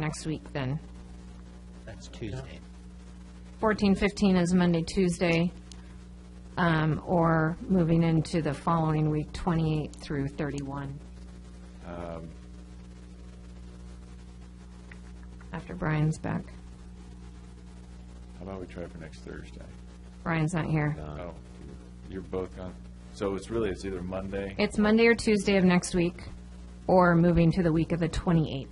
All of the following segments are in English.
next week then. That's Tuesday. 14, 15 is Monday, Tuesday, um, or moving into the following week, 28 through 31. After Brian's back. How about we try for next Thursday? Brian's not here. Uh, Oh, you're both gone. So it's really, it's either Monday, It's Monday or Tuesday of next week, or moving to the week of the 28th.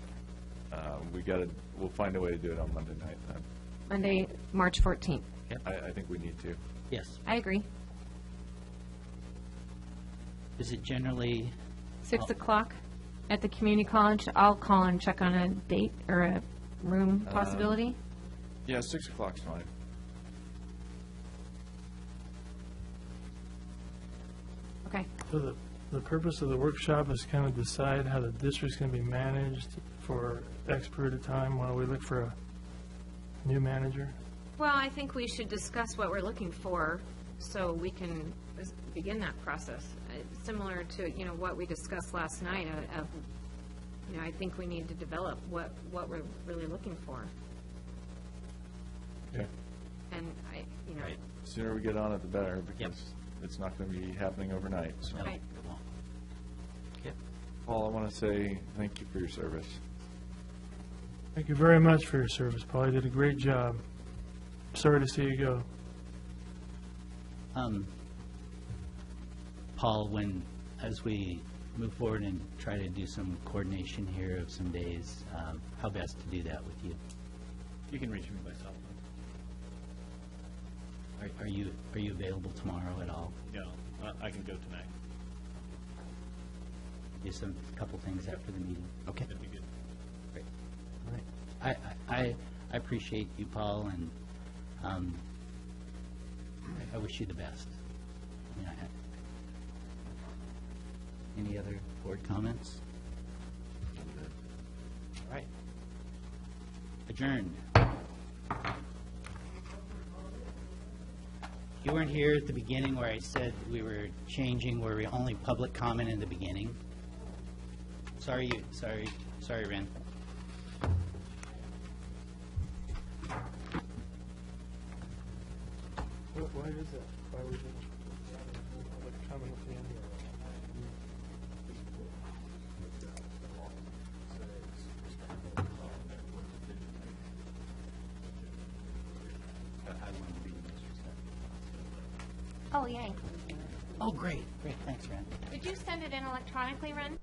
uh, we gotta, we'll find a way to do it on Monday night then. Monday, March 14th. I, I think we need to. Yes. I agree. Is it generally, 6 o'clock at the community college. I'll call and check on a date or a room possibility. Yeah, six o'clock's fine. Okay. So the, the purpose of the workshop is kind of decide how the district's going to be managed for X period of time while we look for a new manager? Well, I think we should discuss what we're looking for, so we can s- begin that process. Uh, Similar to, you know, what we discussed last night uh, of, you know, I think we need to develop what, what we're really looking for. Okay. And I, you know, Right. Sooner we get on it, the better, because it's not gonna be happening overnight, so. no, Right. it won't. Okay. Paul, I wanna say thank you for your service. Thank you very much for your service, Paul. You did a great job. Sorry to see you go. Um, Paul, when, as we move forward and try to do some coordination here of some days, um, how best to do that with you? You can reach me by cell phone. Are- Are you, are you available tomorrow at all? No, I- I can go tonight. Do some, couple things after the meeting? Okay. That'd be good. All right. I, I, I appreciate you, Paul, and um, I- I wish you the best. I mean, I have- Any other board comments? All right. Adjourned. You weren't here at the beginning where I said we were changing, where we only public comment in the beginning. Sorry, you, sorry, sorry, Ren. Why is that? Why would Comment at the end. Oh, yay. Oh, great, great, thanks, Ren. Did you send it in electronically, Ren?